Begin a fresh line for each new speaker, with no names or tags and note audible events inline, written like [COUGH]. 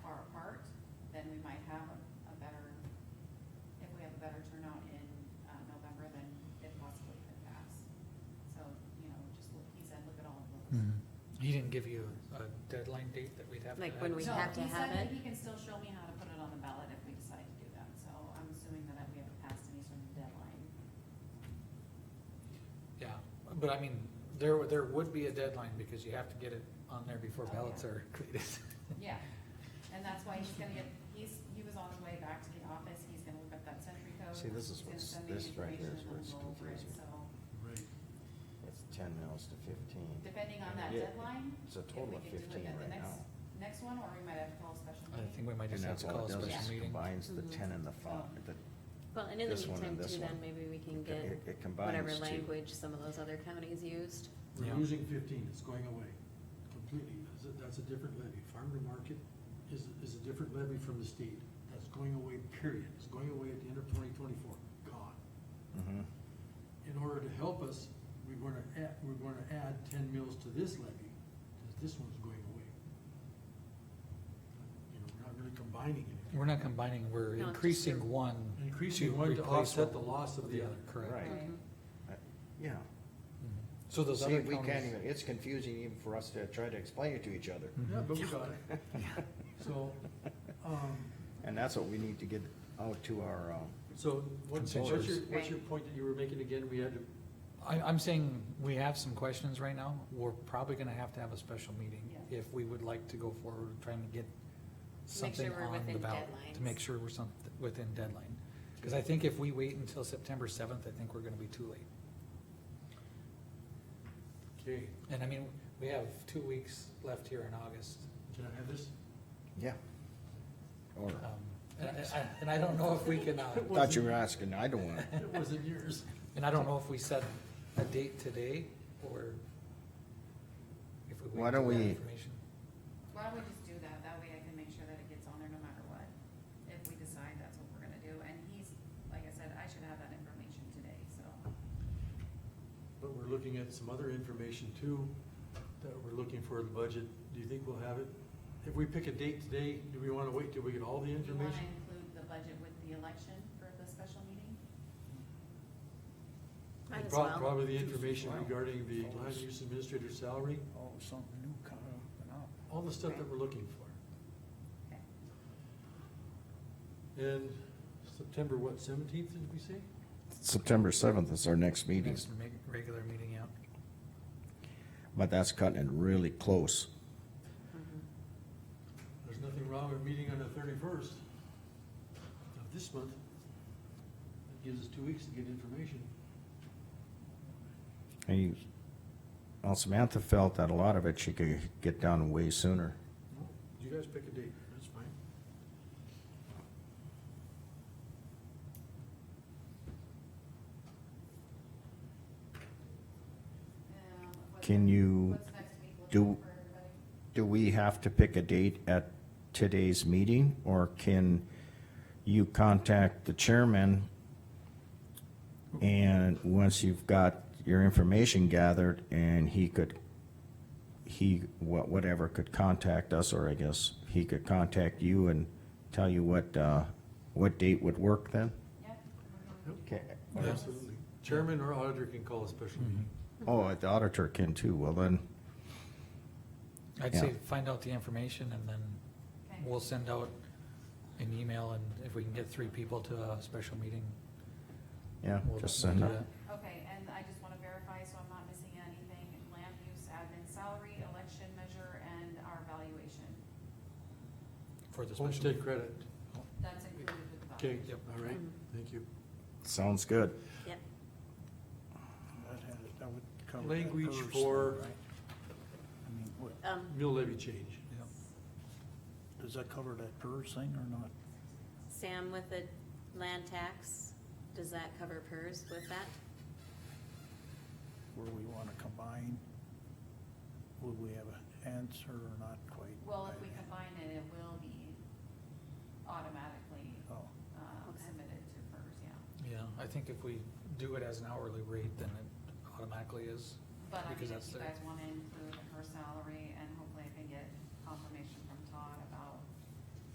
uh,
Hmm. give you a deadline date that we'd have to
Like
have
when
it?
we
No,
have to have
He said that
it?
he can still show me how to put it on the ballot if we decide to do that, so I'm assuming that we haven't passed any sort of deadline.
Yeah, but I mean, there, would- there would be a deadline because you have to get it on there before
Oh,
ballots
yeah.
are created.
Yeah, and that's why he's gonna get, he's, he was on his way back to the office, he's gonna look up that century code.
See, this
he's
is
gonna
what's-
send me
this right here
information
is
and
where it's
we'll go over it,
confusing.
So,
Right.
It's ten mils to fifteen.
depending on that
Yeah,
deadline,
It's a
if
total
we
of
could do it
fifteen
at the
right
next,
now.
next one, or we might have to call a special
[LAUGHS] I think
meeting.
we might
And
just have
that's
to
all
call a
it does,
special
is
meeting.
combines the
Mhm.
ten
Mm-hmm.
and the five, the,
Well, and in the
This one
meantime
and this
too, then
one.
maybe we can
it-
get
it combines
whatever
two.
language some of those other counties used.
Yeah.
We're losing fifteen, it's going away completely, that's a, that's a different levy, farm to market is, is a different levy from the state. That's going away, period, it's going away at the end of twenty twenty-four, gone.
Mhm.
In order to help us, we're gonna add, we're gonna add ten mills to this levy, cause this one's going away. You know, we're not really combining anything.
We're not combining, we're
No, it's just your-
increasing one.
Increasing one to
replace
offset the
one
loss of
with
the other.
Correct.
Right.
Um,
Mhm.
Uh, yeah.
Mhm. So those
See,
other
we can't
counties,
even, it's confusing even for us to try to explain it to each other.
Mhm.
Yeah, but we got it,
[LAUGHS]
so,
uh,
um,
And that's what we need to get out to our, um,
So what's, what's your,
Consensus.
what's your point that you were making again? We had to,
I, I'm saying we have some questions right now. We're probably gonna have to have a special meeting
Yeah.
if we would like to go forward with trying to get
To make sure
something
we're
on the
within
ballot. To make
deadlines.
sure we're some, within deadline. Cause I think if we wait until September seventh, I think we're gonna be too late.
okay,
And I mean, we have two weeks left here in August.
can I have this?
yeah. Or,
Um, And I- I, and I don't know if we can, uh,
thought you were asking, I don't wanna,
It wasn't yours.
and I don't know if we set a date today or if we wait
Why don't
until that
we-
information.
Why don't we just do that, that way I can make sure that it gets on there no matter what, if we decide that's what we're gonna do, and he's, like I said, I should have that information today, so.
But we're looking at some other information too, that we're looking for in the budget. Do you think we'll have it? If we pick a date today, do we wanna wait till we get all the
Do you wanna
information?
include the budget with the election for the special meeting?
Might as
Prob-
well.
Probably the information regarding the land use administrator salary,
Oh, something new coming up
all the stuff that we're looking
Okay.
for. And September, what, seventeenth, did we say?
September seventh is our next meeting,
Next me- regular meeting, yeah.
but that's cutting it really close.
There's nothing wrong with meeting on the thirty-first of this month. That gives us two weeks to get information.
And you, well, Samantha felt that a lot of it she could get done way sooner.
You guys pick a date, that's fine.
Um, what's
Can
next-
you
What's next week
do-
looking for everybody?
Do we have to pick a date at today's meeting, or can you contact the chairman? And once you've got your information gathered, and he could, he, wha- whatever, could contact us, or I guess he could contact you and tell you what, uh, what date would work then?
Yep.
Yep.
Okay.
Absolutely. Chairman or auditor can call a
Mm-hmm.
special meeting.
Oh, the auditor can too, well then,
I'd
Yeah.
say find out the information and then
Okay.
we'll send out an email and if we can get three people to a special meeting.
yeah,
we'll-
just
we'll
send
do
it.
that.
Okay, and I just wanna verify, so I'm not missing anything, land use, admin salary, election measure, and our valuation.
For the special.
Homestead
meeting.
credit.
That's included with the
Okay,
budget.
Yep. Mm-hmm.
all right, thank you.
Sounds good.
Yep.
and that has, that would cover. that
Language
covers
for-
that, right? I mean, what,
Um,
Mill levy change.
Yep.
does that cover that PERS thing or not?
Sam, with the land tax, does that cover PERS with that?
Where we wanna combine? Would we have an answer or not quite?
Well, if
by
we
then?
combine it, it will be automatically,
Oh,
um,
Okay.
submitted to FERS, yeah.
Yeah, I think if we do it as an hourly rate, then it automatically is.
But I mean,
Because
if
that's
you
their-
guys wanna include her salary and